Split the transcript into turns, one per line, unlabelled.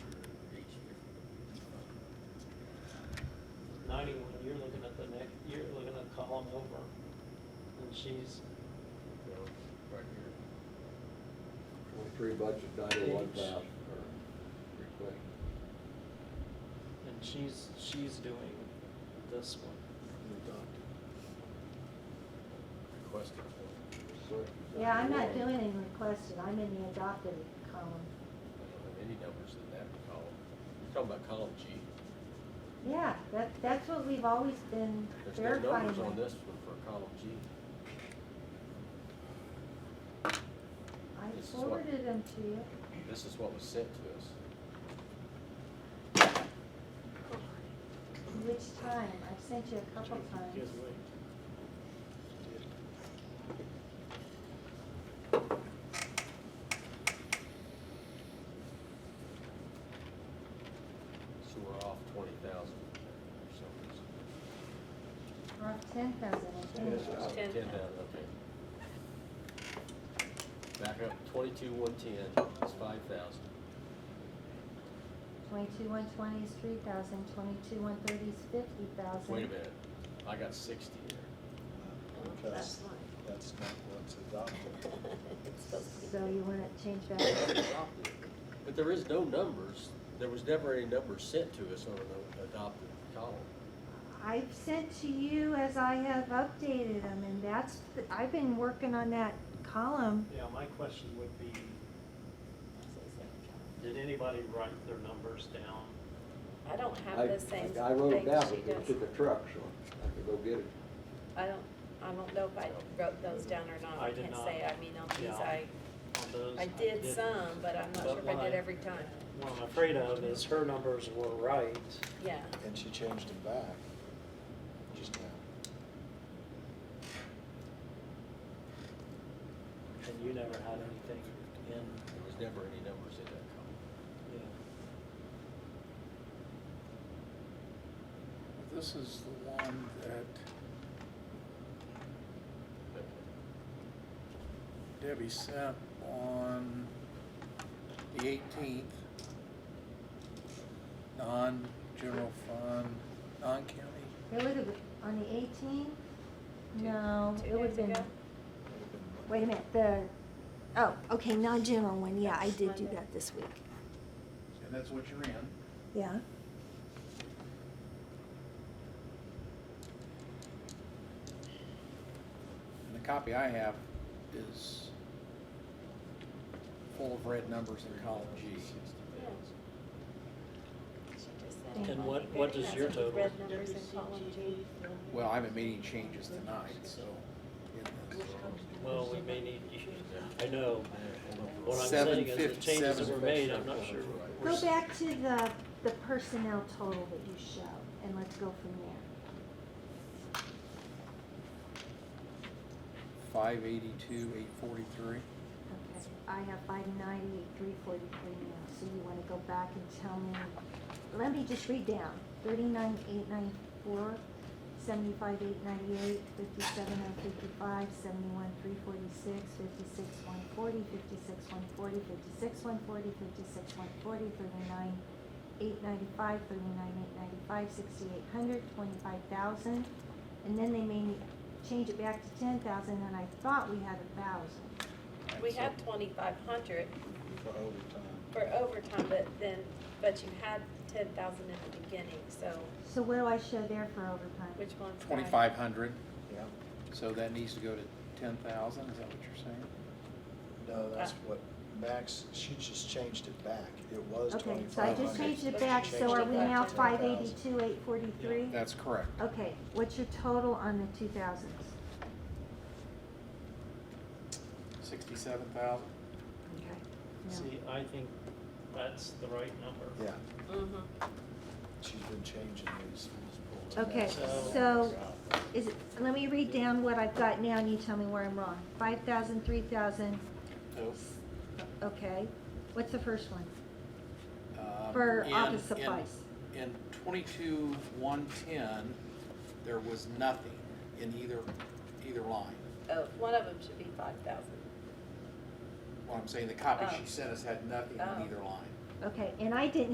come over, and she's
Right here.
Twenty-three budget, ninety-one
Page.
thousand, or request.
and she's she's doing this one.
Requested for.
Yeah, I'm not doing any requested, I'm in the adopted column.
I don't have any numbers in that column. You're talking about column G.
Yeah, that, that's what we've always been
There's no
verifying.
numbers on
with.
this one for column G.
I
This is what-
forwarded them to you.
This is what was sent to us.
Which time? I've sent you a couple times.
So we're off twenty thousand or something.
Or ten thousand, I think.
Yes, I-
Ten thousand, okay. Back up, twenty-two, one ten is five thousand.
Twenty-two, one twenty is three thousand, twenty-two, one thirty is fifty thousand.
Wait a minute, I got sixty there.
That's
Because
fine.
that's not what's adopted.
It's supposed to
So
be.
you wanna change that?
But there is no numbers, there was never any numbers sent to us on the adopted column.
I've sent to you as I have updated them, and that's, the- I've been working on that column.
Yeah, my question would be, did anybody write their numbers down?
I don't
I-
have the same.
I wrote it
thing
down,
she
but it's
does.
in the truck, so I can go get it.
I don't, I don't know if I wrote those down or
I
not, Oh, I
did
can't
not.
say, I mean, on these,
Yeah.
I,
On those?
I did
didn't.
some, but I'm not
But
sure if
what
I did
I-
every time,
What I'm afraid of is her numbers were right,
yeah.
And she changed them back just now.
and you never had anything in,
There was never any numbers in that column.
yeah.
This is the one that Debbie sent on the eighteenth. Non-general fund, non-county.
It would have, on the eighteenth? No,
Two
it would have
days
been,
ago?
wait a minute, the, oh, okay, non-general one, yeah, I did do
Monday.
that this week.
And that's what you're in.
Yeah,
And the copy I have is full of red numbers in column G.
She just said,
And
well,
what-
you
what
better
does
not
your
say these
total-
Red numbers in column G.
Well, I haven't made any changes tonight, so.
Well, we may need, I know,
uh,
what I'm
Seven
saying is the
fifty
changes that
seven.
were made, I'm not sure. we're
go
s-
back to the, the personnel total that you show, and let's go from there.
Five eighty-two, eight forty-three.
Okay, I have five ninety-eight, three forty-three now, so you wanna go back and tell me, let me just read down, thirty-nine, eight ninety-four, seventy-five, eight ninety-eight, fifty-seven, nine fifty-five, seventy-one, three forty-six, fifty-six, one forty, fifty-six, one forty, fifty-six, one forty, fifty-six, one forty, thirty-nine, eight ninety-five, thirty-nine, eight ninety-five, sixty-eight hundred, twenty-five thousand, and then they made me change it back to ten thousand, and I thought we had a thousand.
We have twenty-five hundred
For overtime.
for overtime, but then, but you had ten thousand in the beginning, so
So what do I show there for overtime?
which one's? that?
Twenty-five hundred,
Yeah.
so that needs to go to ten thousand, is that what you're saying?
No, that's what Max, she just changed it back. It was
Okay,
twenty-five
so I
hundred.
just changed it
Let's
back,
change
so are
it
we
back
now
to
five eighty-two, eight forty-three?
That's correct.
Okay, what's your total on the two thousands?
Sixty-seven thousand?
Okay.
See, I think that's the right number.
Yeah,
Mhm.
she's been changing these.
No. Okay,
So-
so, is it, let me read down what I've got now and you tell me where I'm wrong. Five thousand, three thousand, okay, what's the first one?
Um,
For
in-
office
in-
supplies.
In twenty-two, one-ten, there was nothing in either, either line.
Oh, one of them should be five thousand.
What I'm saying, the copy
Oh.
she sent us had nothing in
Oh.
either line.
Okay, and I didn't